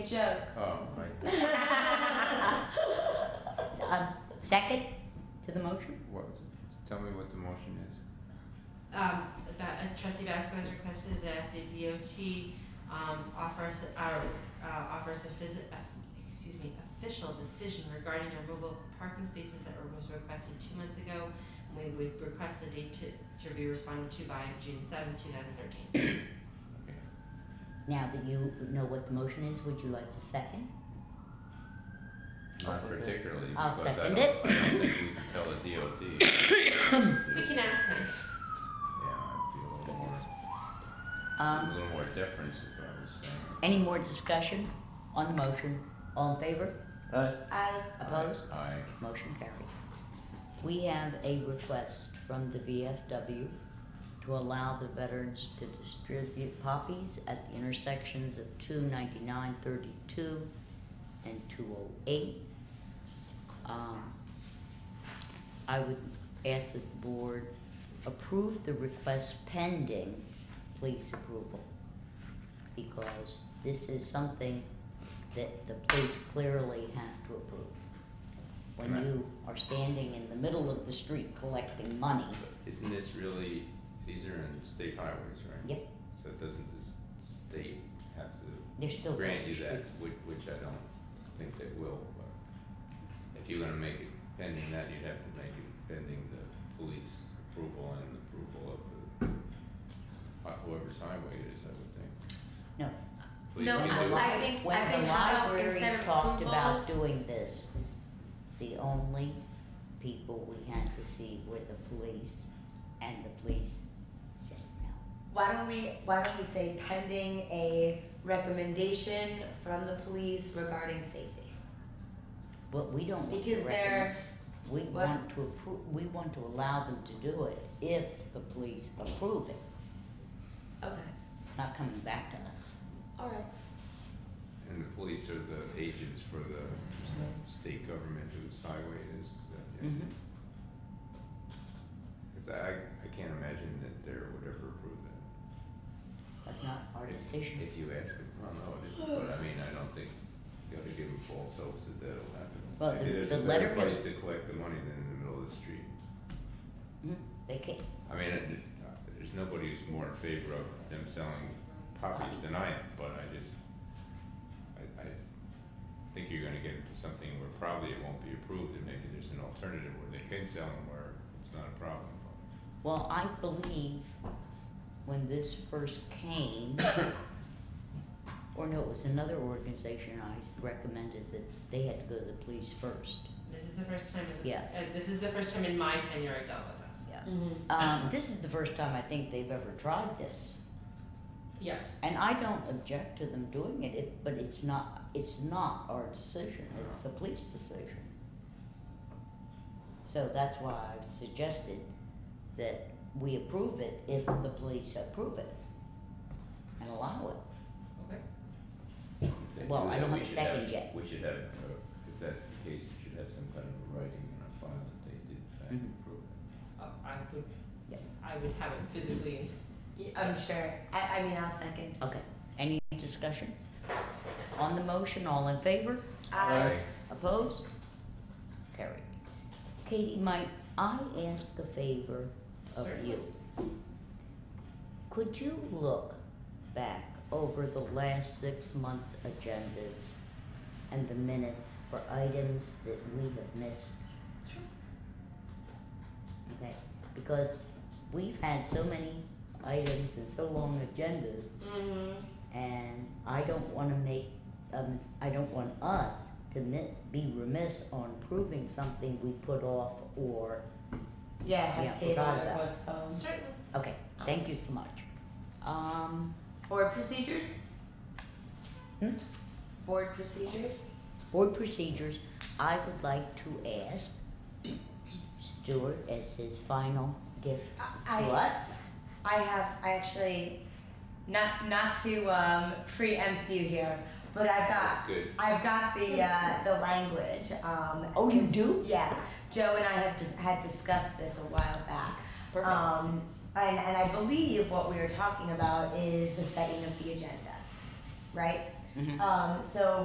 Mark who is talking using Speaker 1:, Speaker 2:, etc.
Speaker 1: joke.
Speaker 2: Oh, right.
Speaker 3: Uh, second to the motion?
Speaker 2: What, tell me what the motion is.
Speaker 1: Um, Ba- uh, trustee Basco has requested that the DOT, um, offer us, uh, uh, offer us a phys- uh, excuse me, official decision regarding the removal of parking spaces that were- was requested two months ago. And We would request the date to, to be responded to by June seventh, two thousand thirteen.
Speaker 3: Now that you know what the motion is, would you like to second?
Speaker 4: I'll
Speaker 2: Not
Speaker 4: second it.
Speaker 2: particularly,
Speaker 3: I'll
Speaker 2: because I
Speaker 3: second
Speaker 2: don't, I
Speaker 3: it.
Speaker 2: don't think we can tell the DOT. Yeah,
Speaker 1: We can ask nice.
Speaker 2: I'd be a little more, a
Speaker 3: Um,
Speaker 2: little more deference if I was saying.
Speaker 3: any more discussion on the motion? All in favor?
Speaker 4: Uh,
Speaker 1: I.
Speaker 3: Opposed?
Speaker 2: Aye.
Speaker 3: Motion carried. We have a request from the VFW to allow the veterans to distribute poppies at the intersections of two ninety-nine thirty-two and two oh eight. Um, I would ask that the board approve the request pending police approval. Because this is something that the police clearly have to approve. When
Speaker 2: Correct.
Speaker 3: you are standing in the middle of the street collecting money,
Speaker 2: Isn't this really, these are in state highways, right?
Speaker 3: Yep.
Speaker 2: So doesn't the s- state have to
Speaker 3: they're still.
Speaker 2: grant you
Speaker 3: village
Speaker 2: that,
Speaker 3: streets.
Speaker 2: which, which I don't think they will, but if you're gonna make it pending that, you'd have to make it pending the police approval and approval of the, uh, whoever's highway it is, I would think.
Speaker 3: No.
Speaker 2: Please
Speaker 1: No,
Speaker 2: we
Speaker 3: The
Speaker 1: I
Speaker 2: do it.
Speaker 3: li-
Speaker 1: like- think-
Speaker 3: When
Speaker 1: I
Speaker 3: the
Speaker 1: think how about
Speaker 3: library
Speaker 1: instead of
Speaker 3: talked
Speaker 1: football-
Speaker 3: about doing this, the only people we had to see were the police, and the police said no.
Speaker 5: Why don't we, why don't we say pending a recommendation from the police regarding safety?
Speaker 3: But we don't want to
Speaker 5: Because they're,
Speaker 3: recommend, we
Speaker 5: what?
Speaker 3: want to approve, we want to allow them to do it if the police approve it,
Speaker 5: okay,
Speaker 3: not coming back to us.
Speaker 5: alright.
Speaker 2: And the police are the agents for the state government whose highway it is, is that, yeah?
Speaker 3: Mhm.
Speaker 2: Cause I, I can't imagine that there would ever approve that.
Speaker 3: That's not our
Speaker 2: If-
Speaker 3: decision.
Speaker 2: If you ask them, I don't know, it is, but I mean, I don't think you ought to give them false hopes that that'll happen.
Speaker 3: Well, the-
Speaker 2: Maybe there's
Speaker 3: the
Speaker 2: a
Speaker 3: letter
Speaker 2: better
Speaker 3: is-
Speaker 2: place to collect the money than in the middle of the street.
Speaker 3: Mhm. They can't,
Speaker 2: I mean, it- it- uh, there's nobody who's more in favor of them selling poppies than I am, but I just, I, I think you're gonna get into something where probably it won't be approved, and maybe there's an alternative where they can sell them where it's not a problem.
Speaker 3: Well, I believe when this first came, or no, it was another organization I recommended that they had to go to the police first.
Speaker 1: This is the first time, as-
Speaker 3: Yeah.
Speaker 1: uh, this is the first time in my tenure I've dealt with this.
Speaker 3: Yeah.
Speaker 5: Mm-hmm.
Speaker 3: Um, this is the first time I think they've ever tried this.
Speaker 1: Yes.
Speaker 3: And I don't object to them doing it, if, but it's not, it's not our decision, it's the police decision. So that's why I've suggested that we approve it if the police approve it and allow it.
Speaker 1: Okay.
Speaker 2: If they
Speaker 3: Well,
Speaker 2: do
Speaker 3: I
Speaker 2: that,
Speaker 3: don't
Speaker 2: we
Speaker 3: have a
Speaker 2: should have-
Speaker 3: second yet.
Speaker 2: We should have, uh, if that's the case, we should have some kind of a writing in our file that they did in fact
Speaker 3: Mhm.
Speaker 2: approve it.
Speaker 1: Uh, I would,
Speaker 3: Yeah.
Speaker 1: I would have it physically.
Speaker 5: I'm sure, I, I mean, I'll second.
Speaker 3: Okay, any discussion? On the motion, all in favor?
Speaker 5: I,
Speaker 3: Opposed? Carried. Katie, might I ask a favor of you? Could you look back over the last six months' agendas and the minutes for items that we have missed? Okay, because we've had so many items and so long agendas
Speaker 5: mm-hmm,
Speaker 3: and I don't wanna make, um, I don't want us to mi- be remiss on proving something we put off or,
Speaker 5: yeah,
Speaker 3: Yeah,
Speaker 5: have table
Speaker 3: forgot
Speaker 5: or
Speaker 3: about
Speaker 5: postpone.
Speaker 1: Certainly.
Speaker 3: okay, thank you so much. Um,
Speaker 5: Board procedures?
Speaker 3: Hmm?
Speaker 5: Board procedures?
Speaker 3: board procedures, I would like to ask Stuart as his final gift to
Speaker 5: I,
Speaker 3: us.
Speaker 5: I have, I actually, not, not to, um, preempt you here, but I've got
Speaker 2: That's good.
Speaker 5: I've got the uh, the language. Um,
Speaker 3: Oh, you
Speaker 5: 'cause-
Speaker 3: do?
Speaker 5: Yeah, Joe and I have dis- had discussed this a while back.
Speaker 3: Perfect.
Speaker 5: Um, and, and I believe what we were talking about is the setting of the agenda, right?
Speaker 3: Mhm.
Speaker 5: Um, so